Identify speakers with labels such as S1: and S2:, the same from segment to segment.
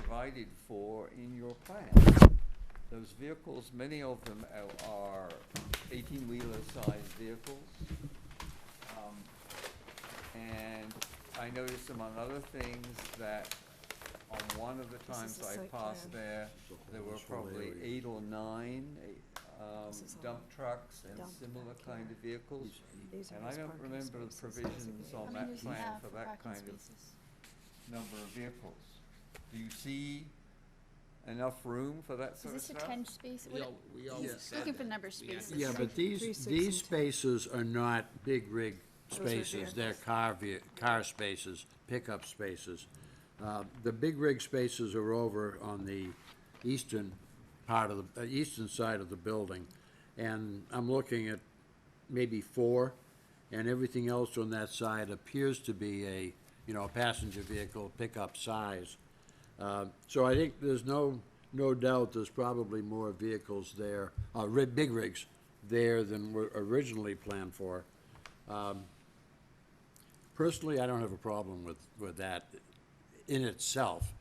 S1: provided for in your plan. Those vehicles, many of them are- are eighteen-wheeler sized vehicles. Um, And I noticed among other things that on one of the
S2: is
S1: times
S2: the
S1: I
S2: site
S1: passed
S2: plan.
S1: there, there were
S3: This whole
S1: probably
S3: area.
S1: eight or nine eh, um,
S2: This is all
S1: dump trucks and
S2: dump
S1: similar
S2: back
S1: kind
S2: here.
S1: of vehicles.
S2: These are
S1: And I
S2: his
S1: don't
S2: parking
S1: remember the
S2: spaces as of
S1: provisions
S2: yet.
S1: on
S4: How
S1: that
S4: many do you
S1: plan
S4: have
S1: for
S4: for
S1: that
S4: parking
S1: kind of
S4: spaces?
S1: number of vehicles. Do you see enough room for that
S4: Is
S1: sort of
S4: this a
S1: stuff?
S4: ten space?
S5: We
S4: What-
S5: al- we always said
S4: Looking for
S5: that.
S4: number
S5: We had-
S4: spaces.
S3: Yeah, but
S2: Three,
S3: these,
S2: six,
S3: these
S2: and ten.
S3: spaces are not big rig
S2: are
S3: spaces, they're car, ve- car spaces, pickup spaces. Uh, The big rig spaces are over on the eastern part of the, uh, eastern side of the building. And I'm looking at maybe four, and everything else on that side appears to be a, you know, a passenger vehicle pickup size. Uh, So I think there's no, no doubt there's probably more vehicles there, uh, ri- big rigs there than were originally planned for. Um, Personally, I don't have a problem with, with that in itself.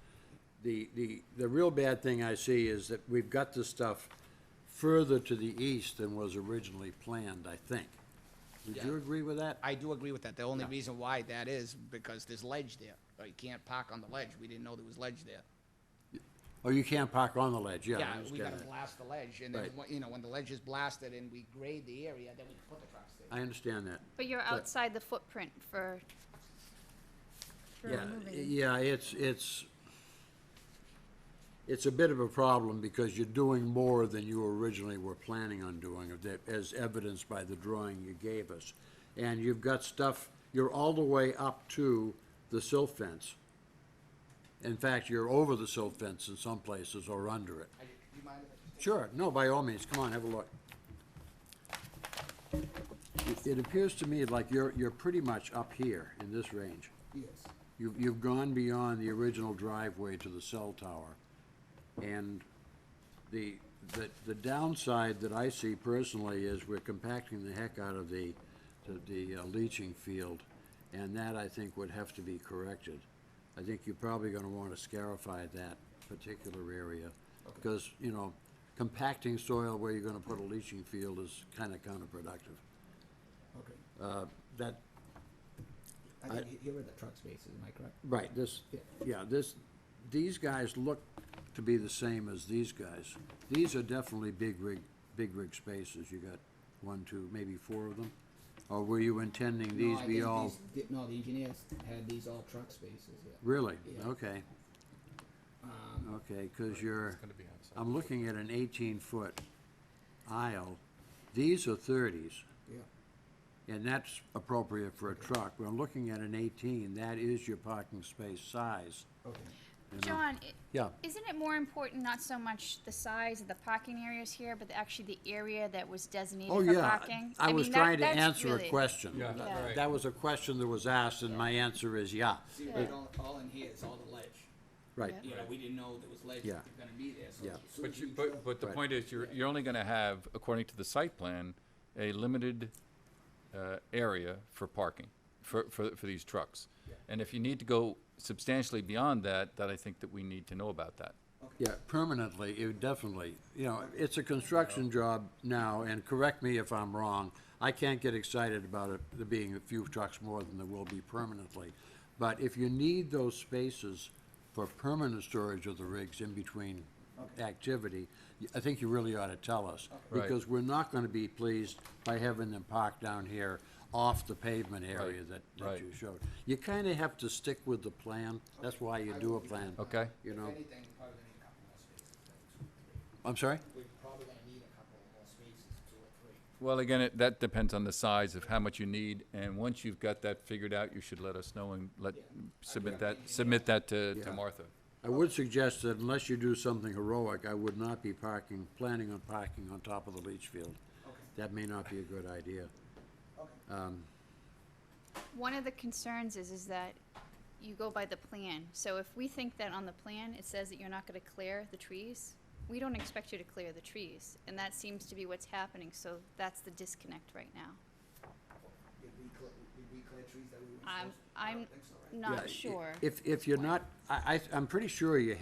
S3: The, the, the real bad thing I see is that we've got this stuff further to the east than was originally planned, I think. Would you
S5: Yeah.
S3: agree with that?
S6: I do agree with that. The only reason why that is because there's ledge there. Uh, You can't park on the ledge. We didn't know there was ledge there.
S3: Oh, you can't park on the ledge, yeah, I
S6: Yeah, we
S3: understand
S6: gotta
S3: that.
S6: blast the ledge and then,
S3: Right.
S6: when- you know, when the ledge is blasted and we grade the area, then we can put the trucks there.
S3: I understand that.
S4: But you're outside the footprint for,
S3: Yeah, yeah, it's, it's, it's a bit of a problem because you're doing more than you originally were planning on doing, that- as evidenced by the drawing you gave us. And you've got stuff, you're all the way up to the silt fence. In fact, you're over the silt fence in some places or under it.
S6: I- Do you mind if I just
S3: Sure, no, by all means, come on, have a look. It- It appears to me like you're, you're pretty much up here in this range.
S6: Yes.
S3: You've, you've gone beyond the original driveway to the cell tower. And the, the, the downside that I see personally is we're compacting the heck out of the, the- the uh, leaching field, and that I think would have to be corrected. I think you're probably gonna wanna scarify that particular area, because, you know, compacting soil where you're gonna put a leaching field is kinda counterproductive.
S6: Okay.
S3: Uh, that,
S6: I think he- here are the truck spaces, am I correct?
S3: Right, this, yeah, this, these guys look to be the same as these guys. These are definitely big rig, big rig spaces. You got one, two, maybe four of them? Or were you intending
S6: No,
S3: these
S6: I
S3: be
S6: think
S3: all,
S6: these- di- No, the engineers had these all truck spaces, yeah.
S3: really?
S6: Yeah.
S3: Okay,
S6: Um,
S3: okay, because you're,
S5: gonna be outside.
S3: I'm looking at an eighteen-foot aisle. These are thirties,
S6: yeah.
S3: and that's appropriate for a truck. We're looking at an eighteen, that is your parking space size.
S6: Okay.
S3: you know?
S4: John, i-
S3: Yeah.
S4: isn't it more important, not so much the size of the parking areas here, but actually the area that was designated
S3: Oh,
S4: for
S3: yeah.
S4: parking?
S3: I was
S4: mean, that-
S3: trying to
S4: that's
S3: answer a
S4: really-
S3: question.
S5: Yeah,
S3: That-
S4: Yeah. right.
S3: That was a question that was asked, and my answer is yeah.
S6: See, right, all, all in here is all the ledge.
S3: Right,
S4: Yeah.
S6: You know, we didn't know there was ledge
S3: Yeah.
S6: gonna be there, so.
S3: Yeah.
S6: as soon
S7: But
S6: as
S7: you,
S6: we
S7: but,
S6: drove-
S7: but the
S3: Right.
S7: point is, you're, you're only gonna have, according to the site plan, a limited, uh, area for parking, for, for, for these trucks. And if you need to go substantially beyond that, that I think that we need to know about that.
S3: yeah, permanently, it would definitely, you know, it's a construction job now, and correct me if I'm wrong, I can't get excited about it, there being a few trucks more than there will be permanently. But if you need those spaces for permanent storage of the rigs in between activity, y- I think you really ought to tell us.
S7: Right.
S3: Because we're not gonna be pleased by having them parked down here off the pavement area
S7: Right.
S3: that, that
S7: Right.
S3: you showed. You kinda have to stick with the plan, that's why you do a plan.
S7: Okay.
S3: You know,
S6: If anything, we're probably gonna need a couple more spaces.
S3: I'm sorry?
S6: We're probably gonna need a couple more spaces, two or three.
S7: Well, again, it, that depends on the size of how much you need, and once you've got that figured out, you should let us know and let,
S6: Yeah.
S7: submit
S6: Okay.
S7: that, submit that to,
S3: Yeah.
S7: to Martha.
S3: I would suggest that unless you do something heroic, I would not be parking, planning on parking on top of the leach field. That may not be a good idea.
S4: One of the concerns is, is that you go by the plan. So if we think that on the plan, it says that you're not gonna clear the trees, we don't expect you to clear the trees. And that seems to be what's happening, so that's the disconnect right now.
S6: Did we clear, did we clear trees that we weren't supposed
S4: I'm,
S6: to? I
S4: I'm
S6: don't think so, right?
S3: Yeah, i-
S4: not sure.
S3: If, if you're not, I, I, I'm pretty sure you